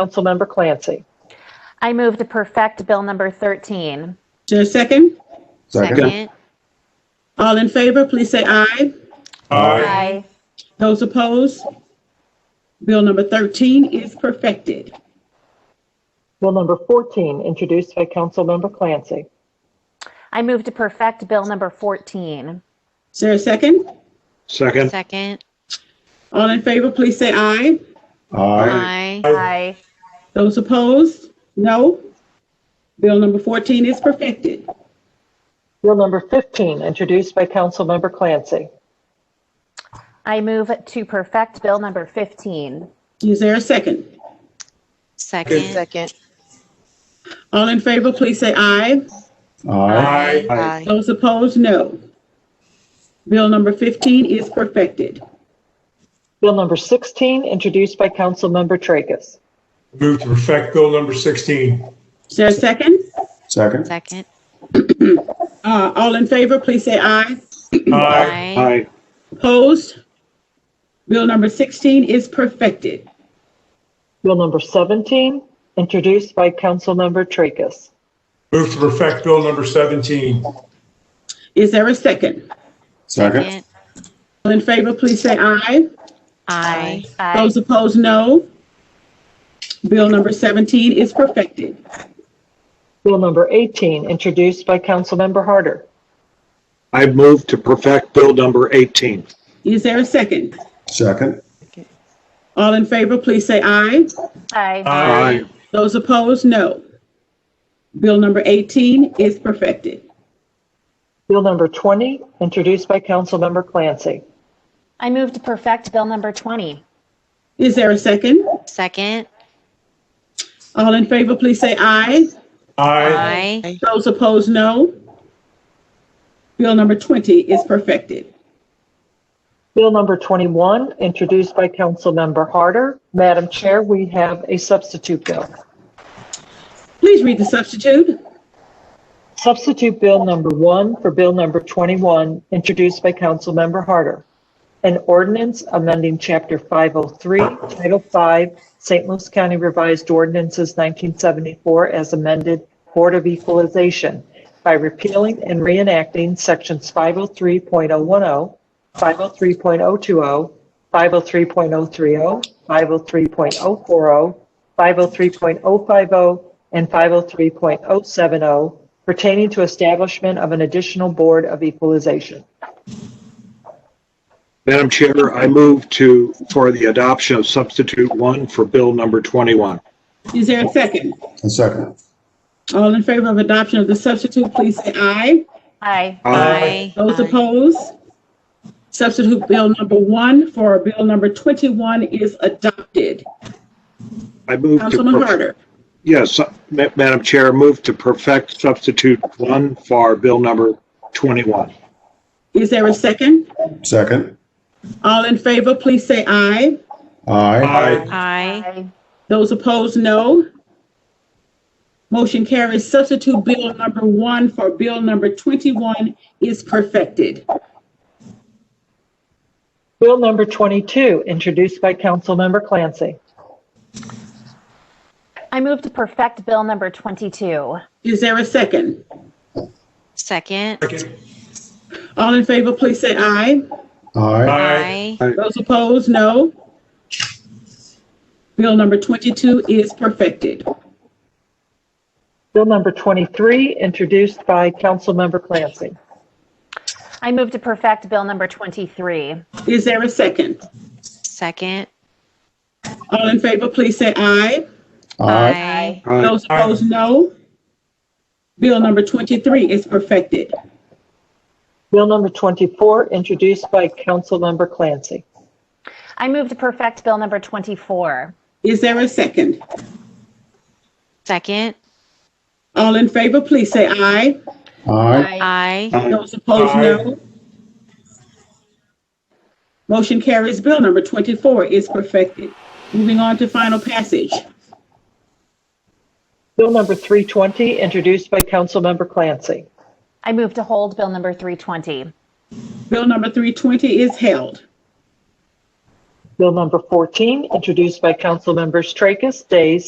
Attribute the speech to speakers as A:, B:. A: Councilmember Clancy.
B: I move to perfect Bill number 13.
C: Is there a second?
D: Second.
C: All in favor, please say aye.
E: Aye.
B: Aye.
C: Those opposed? Bill number 13 is perfected.
A: Bill number 14, introduced by Councilmember Clancy.
B: I move to perfect Bill number 14.
C: Is there a second?
E: Second.
D: Second.
C: All in favor, please say aye.
D: Aye.
B: Aye.
C: Those opposed? No. Bill number 14 is perfected.
A: Bill number 15, introduced by Councilmember Clancy.
B: I move to perfect Bill number 15.
C: Is there a second?
D: Second.
F: Second.
C: All in favor, please say aye.
E: Aye.
F: Aye.
C: Those opposed? No. Bill number 15 is perfected.
A: Bill number 16, introduced by Councilmember Tracus.
E: Move to perfect Bill number 16.
C: Is there a second?
G: Second.
D: Second.
C: Uh, All in favor, please say aye.
D: Aye.
C: Opposed? Bill number 16 is perfected.
A: Bill number 17, introduced by Councilmember Tracus.
E: Move to perfect Bill number 17.
C: Is there a second?
G: Second.
D: Second.
C: All in favor, please say aye.
D: Aye.
B: Aye.
C: Those opposed, no. Bill number 17 is perfected.
A: Bill number 18, introduced by Councilmember Harder.
H: I move to perfect Bill number 18.
C: Is there a second?
G: Second.
C: All in favor, please say aye.
B: Aye.
C: Those opposed, no. Bill number 18 is perfected.
A: Bill number 20, introduced by Councilmember Clancy.
B: I move to perfect Bill number 20.
C: Is there a second?
D: Second.
C: All in favor, please say aye.
E: Aye.
D: Aye.
C: Those opposed, no. Bill number 20 is perfected.
A: Bill number 21, introduced by Councilmember Harder. Madam Chair, we have a substitute bill.
C: Please read the substitute.
A: Substitute Bill Number 1 for Bill Number 21, introduced by Councilmember Harder. An ordinance amending Chapter 503, Title 5, St. Louis County Revised Ordinances 1974 as amended Board of Equalization by repealing and reenacting Sections 503.010, 503.020, 503.030, 503.040, 503.050, oh, and 503.070 pertaining to establishment of an additional Board of Equalization.
H: Madam Chair, I move to, for the adoption of substitute one for Bill number 21.
C: Is there a second?
G: And second.
C: All in favor of adoption of the substitute, please say aye.
B: Aye.
D: Aye.
C: Those opposed? Substitute Bill number one for Bill number 21 is adopted.
H: I move to.
C: Councilman
H: perf-
C: Harder,
H: Yes, uh, Ma- Madam Chair, move to perfect substitute one for Bill number 21.
C: is there a second?
G: Second.
C: All in favor, please say aye.
G: Aye.
E: Aye.
D: Aye.
C: Those opposed, no. Motion carries. Substitute Bill number one for Bill number 21 is perfected.
A: Bill Number 22, introduced by Councilmember Clancy.
B: I move to perfect Bill number 22.
C: Is there a second?
D: Second.
E: Second.
C: All in favor, please say aye.
G: Aye.
D: Aye.
C: Those opposed, no. Bill number 22 is perfected.
A: Bill Number 23, introduced by Councilmember Clancy.
B: I move to perfect Bill number 23.
C: Is there a second?
D: Second.
C: All in favor, please say aye.
G: Aye.
D: Aye.
H: Aye.
C: Those opposed, no. Bill number 23 is perfected.
A: Bill Number 24, introduced by Councilmember Clancy.
B: I move to perfect Bill number 24.
C: Is there a second?
D: Second.
C: All in favor, please say aye.
G: Aye.
D: Aye.
C: Those opposed, no. Motion carries. Bill number 24 is perfected. Moving on to final passage.
A: Bill Number 320, introduced by Councilmember Clancy.
B: I move to hold Bill number 320.
C: Bill number 320 is held.
A: Bill number 14, introduced by Councilmembers Tracus, Days,